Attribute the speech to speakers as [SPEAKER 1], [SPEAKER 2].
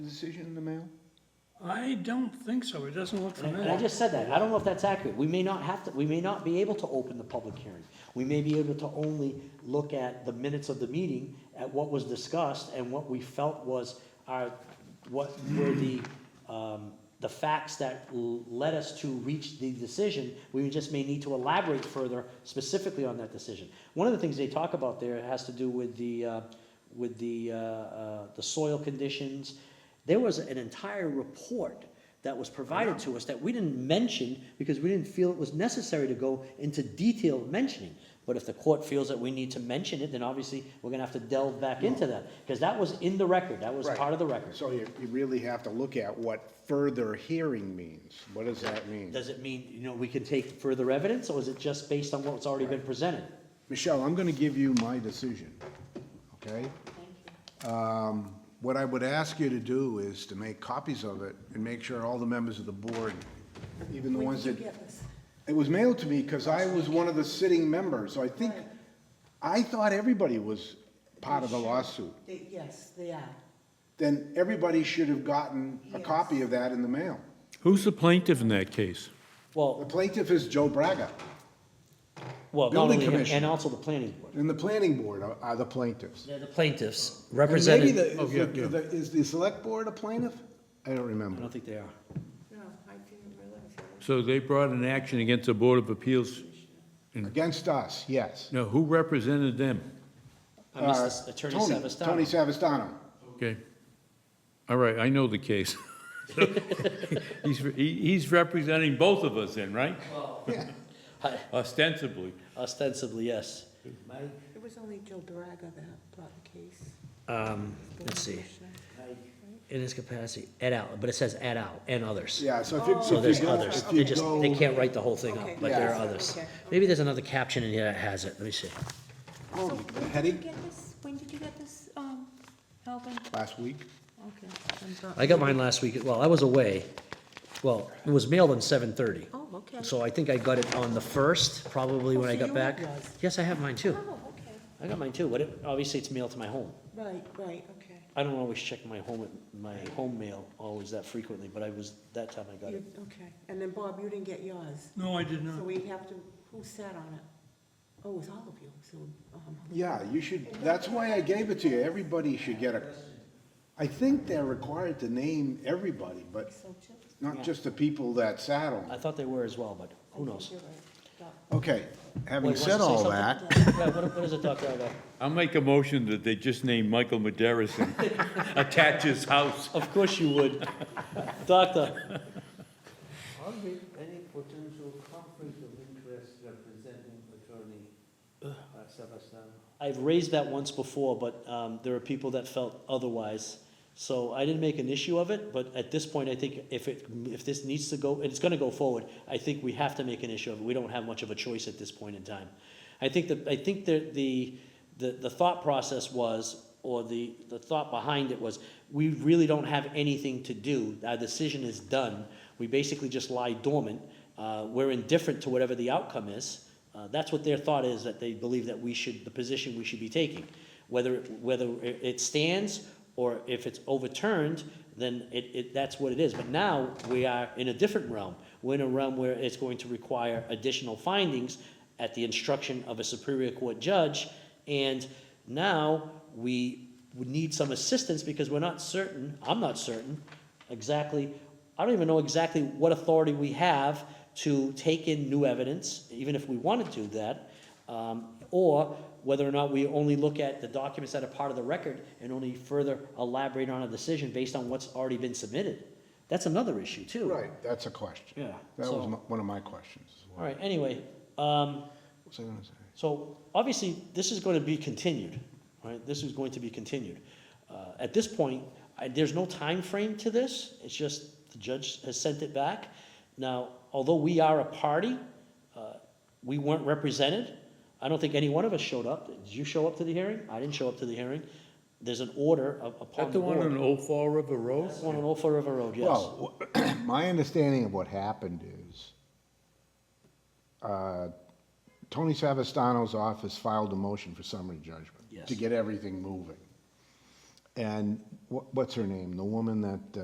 [SPEAKER 1] decision in the mail?
[SPEAKER 2] I don't think so, it doesn't look
[SPEAKER 3] And I
[SPEAKER 2] familiar.
[SPEAKER 3] just said that, I don't know if that's accurate, we may not have to, we may not be able to open the public hearing. We may be able to only look at the minutes of the meeting, at what was discussed, and what we felt was our, what were the, um, the facts that l- led us to reach the decision. We just may need to elaborate further specifically on that decision. One of the things they talk about there has to do with the, uh, with the, uh, uh, the soil conditions. There was an entire report that was provided to us that we didn't mention because we didn't feel it was necessary to go into detail mentioning. But if the court feels that we need to mention it, then obviously we're gonna have to delve back into that, because that was in the record, that was
[SPEAKER 1] Right.
[SPEAKER 3] part of the record.
[SPEAKER 1] So you, you really have to look at what further hearing means. What does that mean?
[SPEAKER 3] Does it mean, you know, we can take further evidence, or is it just based on what's already been presented?
[SPEAKER 1] Michelle, I'm gonna give you my decision, okay? Um, What I would ask you to do is to make copies of it and make sure all the members of the board, even the
[SPEAKER 4] When
[SPEAKER 1] ones
[SPEAKER 4] did you
[SPEAKER 1] that.
[SPEAKER 4] get this?
[SPEAKER 1] It was mailed to me because I was one of the sitting members, so I think,
[SPEAKER 4] Right.
[SPEAKER 1] I thought everybody was part of the lawsuit.
[SPEAKER 4] They- Yes, they are.
[SPEAKER 1] Then everybody should have gotten a copy of that in the mail.
[SPEAKER 5] Who's the plaintiff in that case?
[SPEAKER 1] The
[SPEAKER 3] Well,
[SPEAKER 1] plaintiff is Joe Braga,
[SPEAKER 3] well, not
[SPEAKER 1] Building
[SPEAKER 3] only him, and
[SPEAKER 1] commissioner.
[SPEAKER 3] also the planning board.
[SPEAKER 1] and the planning board are- are the plaintiffs.
[SPEAKER 3] They're the plaintiffs,
[SPEAKER 1] And maybe
[SPEAKER 3] represented, I
[SPEAKER 1] the, is the- is the select board a plaintiff? I don't remember.
[SPEAKER 3] don't think they are.
[SPEAKER 4] No, I didn't realize that.
[SPEAKER 5] So they brought an action against the Board of Appeals.
[SPEAKER 3] Mm-hmm.
[SPEAKER 1] Against us, yes.
[SPEAKER 5] Now, who represented them?
[SPEAKER 3] I missed
[SPEAKER 1] Uh,
[SPEAKER 3] this, Attorney
[SPEAKER 1] Tony-
[SPEAKER 3] Savastano.
[SPEAKER 1] Tony Savastano.
[SPEAKER 5] Okay. All right, I know the case. He's, he- he's representing both of us then, right?
[SPEAKER 3] Hi.
[SPEAKER 5] Ostensibly.
[SPEAKER 3] Ostensibly, yes.
[SPEAKER 4] It was only Joe Braga that brought the case.
[SPEAKER 3] Um, let's see, in his capacity, et al., but it says et al. and others.
[SPEAKER 1] Yeah, so if you,
[SPEAKER 3] So
[SPEAKER 1] if
[SPEAKER 3] Oh, there's
[SPEAKER 1] you go,
[SPEAKER 3] others,
[SPEAKER 1] if
[SPEAKER 3] they
[SPEAKER 1] you
[SPEAKER 3] just,
[SPEAKER 1] go.
[SPEAKER 3] they can't write the whole thing up,
[SPEAKER 4] Okay,
[SPEAKER 3] but there are
[SPEAKER 4] yeah.
[SPEAKER 3] others.
[SPEAKER 4] Okay.
[SPEAKER 3] Maybe there's another caption in here that has it, let me see.
[SPEAKER 1] Oh,
[SPEAKER 6] So
[SPEAKER 1] the
[SPEAKER 6] when did you
[SPEAKER 1] headache
[SPEAKER 6] get this, when did you get this, um, Alvin?
[SPEAKER 1] last week.
[SPEAKER 4] Okay. I'm sorry.
[SPEAKER 3] I got mine last week, well, I was away, well, it was mailed on seven thirty.
[SPEAKER 4] Oh, okay.
[SPEAKER 3] So I think I got it on the first, probably when
[SPEAKER 4] Oh,
[SPEAKER 3] I
[SPEAKER 4] so
[SPEAKER 3] got
[SPEAKER 4] you have
[SPEAKER 3] back.
[SPEAKER 4] yours.
[SPEAKER 3] Yes, I have mine too,
[SPEAKER 6] Oh, okay.
[SPEAKER 3] I got mine too, but it, obviously it's mailed to my home.
[SPEAKER 4] Right, right, okay.
[SPEAKER 3] I don't always check my home, my home mail always that frequently, but I was, that time I got it.
[SPEAKER 4] You- Okay, and then Bob, you didn't get yours.
[SPEAKER 2] No, I did
[SPEAKER 4] So
[SPEAKER 2] not.
[SPEAKER 4] we have to, who sat on it? Oh, it was all of you, so, um,
[SPEAKER 1] Yeah, you should, that's why I gave it to you. Everybody should get a, I think they're required to name everybody, but
[SPEAKER 4] so Chip?
[SPEAKER 1] not just the people that sat on.
[SPEAKER 3] I thought they were as well, but who knows?
[SPEAKER 4] You're right. Bob.
[SPEAKER 1] Okay, having
[SPEAKER 3] Wait, wants to
[SPEAKER 1] said
[SPEAKER 3] say
[SPEAKER 1] all
[SPEAKER 3] something?
[SPEAKER 1] that,
[SPEAKER 3] Yeah, what, what is it, Dr. Igo?
[SPEAKER 5] I'll make a motion that they just name Michael Maderis and attach his house.
[SPEAKER 3] Of course you would. Doctor,
[SPEAKER 7] Always any potential conflict of interest representing attorney uh, Sebastian.
[SPEAKER 3] I've raised that once before, but, um, there are people that felt otherwise. So I didn't make an issue of it, but at this point, I think if it, if this needs to go, and it's gonna go forward, I think we have to make an issue of it. We don't have much of a choice at this point in time. I think that, I think that the, the, the thought process was, or the, the thought behind it was, we really don't have anything to do. Our decision is done. We basically just lie dormant. Uh, we're indifferent to whatever the outcome is. Uh, that's what their thought is, that they believe that we should, the position we should be taking. Whether, it- whether it it stands or if it's overturned, then it, it, that's what it is. But now we are in a different realm. We're in a realm where it's going to require additional findings at the instruction of a Superior Court judge. And now we would need some assistance because we're not certain, I'm not certain, exactly, I don't even know exactly what authority we have to take in new evidence, even if we wanted to do that, um, or whether or not we only look at the documents that are part of the record and only further elaborate on a decision based on what's already been submitted. That's another issue too.
[SPEAKER 1] right, that's a question.
[SPEAKER 3] Yeah,
[SPEAKER 1] That was
[SPEAKER 3] so-
[SPEAKER 1] my- one of my questions.
[SPEAKER 3] All right, anyway, um,
[SPEAKER 1] What was I gonna say?
[SPEAKER 3] so obviously, this is going to be continued, right? This is going to be continued. Uh, At this point, I- there's no time frame to this, it's just the judge has sent it back. Now, although we are a party, uh, we weren't represented. I don't think any one of us showed up. Did you show up to the hearing? I didn't show up to the hearing. There's an order up- upon
[SPEAKER 5] That
[SPEAKER 3] the
[SPEAKER 5] the one on
[SPEAKER 3] board.
[SPEAKER 5] Old Fall River Road?
[SPEAKER 3] That's the one on Old Fall River Road, yes.
[SPEAKER 1] Well, my understanding of what happened is, uh, Tony Savastano's office filed a motion for summary judgment.
[SPEAKER 3] Yes.
[SPEAKER 1] To get everything moving. And wha- what's her name? The woman that uh,